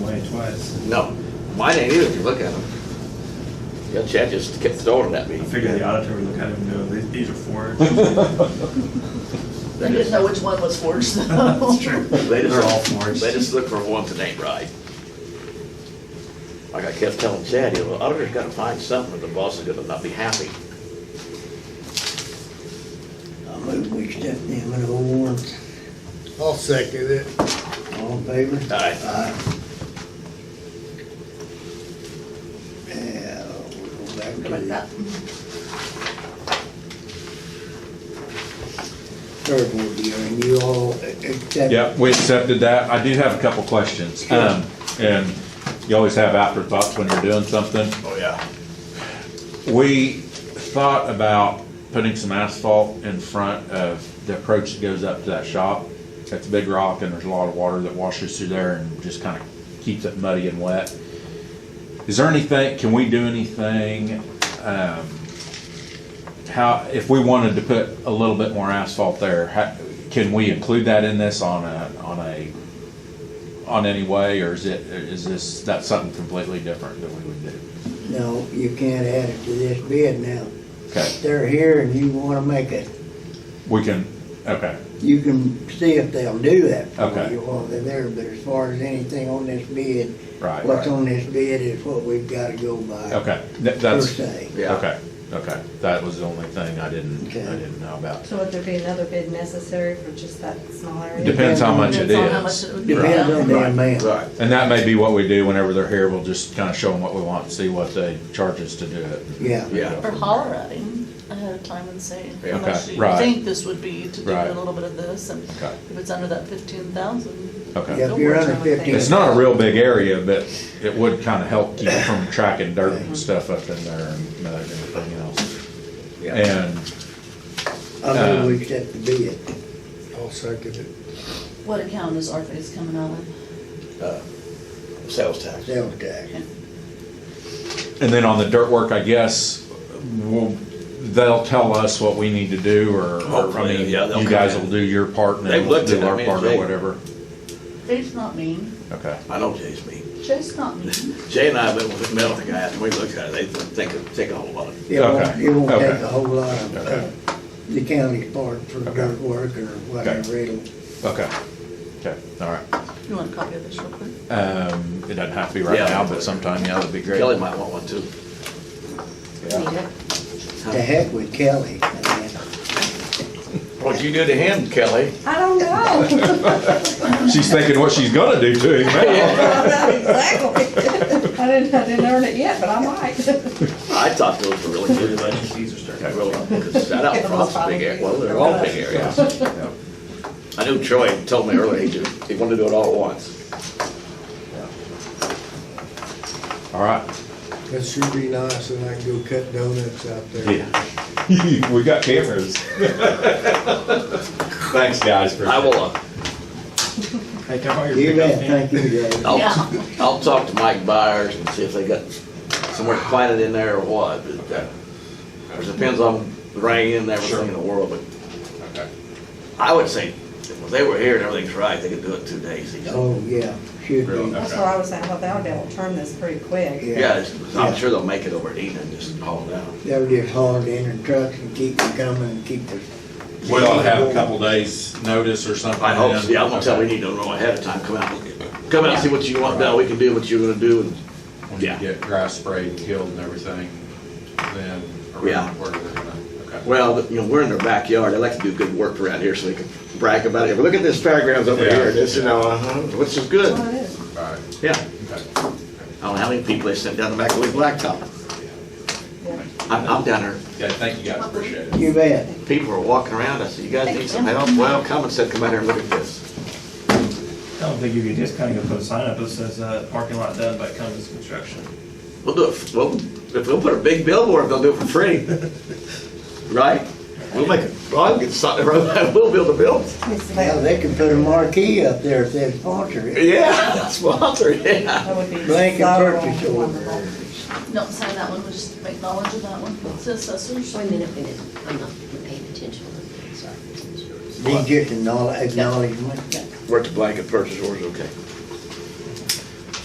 was. No, mine ain't either if you look at them. Yeah, Chad just kept throwing it at me. I figure the auditor would look at it and go, "These- these are forged. I didn't know which one was forged though. That's true. They They're all just, forged. they just look for ones that ain't right. Like I kept telling Chad, you know, the auditor's gotta find something, or the boss is gonna not be happy. I move we accept them and all warrants. I'll second it. All in favor? Aye. Aye. Yeah, Uh, we'll go back to Like that. the third one, dear, and you all accept. Yep, we accepted that. I do have a couple questions. Um, and you always have afterthoughts when you're doing something. Oh, yeah. We thought about putting some asphalt in front of the approach that goes up to that shop. That's a big rock and there's a lot of water that washes through there and just kind of keeps it muddy and wet. Is there anything, can we do anything, um, how, if we wanted to put a little bit more asphalt there, how, can we include that in this on a, on a, on any way, or is it, is this, that's something completely different that we would do? No, you can't add it to this bid now. Okay. They're here and you wanna make it, We can, okay, you can see if they'll do that for Okay. you while they're there, but as far as anything on this bid, right, what's right. on this bid is what we've gotta go by. Okay, Th- Per that's, se. Yeah. okay, okay. That was the only thing I didn't, Okay. I didn't know about. So would there be another bid necessary for just that small area? Depends how much it Depends on how is. much it would be. Depends on the amount. Right. And that may be what we do whenever they're here. We'll just kind of show them what we want, see what they charge us to do it. Yeah. Yeah. Or holler at him ahead of time and say, Yeah, how much okay, do you right. think this would be to do a Right. little bit of this? And Okay. Oh. if it's under that fifteen thousand, Okay. Yeah, if you're under fifteen. It's not a real big area, but it would kind of help keep from tracking dirt Mm-hmm. and stuff up in there and mud and everything else. Yeah. And I uh, move we accept the bid. I'll second it. what account is our face coming out of? Sales tax. sales tax. And then on the dirt work, I guess, we'll, they'll tell us what we need to do, or, or, I Hopefully, mean, yeah, they'll you come guys in. will do your part and then They've we'll looked do at it, I our mean, part they- or whatever. Jay's not mean, Okay, I know Jay's mean. Jay's not mean. Jay and I have been with the metal guys, and we looked at it, they think, it- think a whole lot of, It won't, Okay, it won't okay. take a whole lot of uh, Okay. the county's part for dirt work or whatever. It'll, okay, okay, all right. You want a copy of this real quick? Um, it doesn't have to be right Yeah. now, but sometime, yeah, that'd be great. Kelly might want one too. Yeah. to heck with Kelly. I mean, What'd you do to him, Kelly? I don't know. She's thinking what she's gonna do to him now. Exactly. I didn't, I didn't earn it yet, but I might. I thought those were really good. These are starting. I really, because that out front's a big area, well, they're all big areas. Yeah. I knew Troy told me earlier, he just, he wanted to do it all at once. All right, That should be nice, and I can go cut donuts out there. yeah. We got cameras. Thanks, guys, for. I will, uh, Hey, can I borrow your You pickup, bet, man? thank you, Dave. Yeah. I'll, I'll talk to Mike Byers and see if they got somewhere to plant it in there or what, but, uh, it depends on the rain and everything in the world, but Okay. I would say, if they were here and everything's right, they could do it two days. easy. Oh, yeah, should Real, be. That's what I was saying, I thought that would be able to turn this pretty quick. Yeah. Yeah, it's- I'm sure they'll make it over at Eden, just haul it out. They'll just haul it in their trucks and keep it coming and keep it. We ought to have a couple days' notice or something. I hope, then. yeah, I'm gonna tell, we need to know ahead of time, come out, come out and see what you want done, we can do what you're gonna do, and, when you Yeah. get grass sprayed and killed and everything, then Yeah. around where they're gonna, okay. well, you know, we're in their backyard, I like to do good work around here, so they can brag about it, look at this fairgrounds over Yeah. here, and it's, you know, uh-huh, which is good, Well, it is. All right, yeah. okay. I don't know how many people they sent down the back of the blacktop, Yeah. I'm, I'm down there, Yeah, thank you guys, appreciate it. You bet. people are walking around, I said, you guys need some help, well, come and said, come out here and look at this. I don't think you could just kind of put a sign up that says, uh, parking lot done by Cummins Construction. We'll do it, f- well, if we'll put a big billboard, they'll do it for free. Right? We'll make it, well, I'll get something, we'll build a building. It's Now, available. they can put a marquee up there if they sponsor it. Yeah, sponsor, yeah. That would be Blanket so purchase order. wonderful. Don't sign that one, we just make knowledge of that one. It says assessors. Wait a minute, wait a minute, I'm not paying attention, I'm sorry. Be just acknowledge- acknowledgement. Work the blanket purchase orders, okay.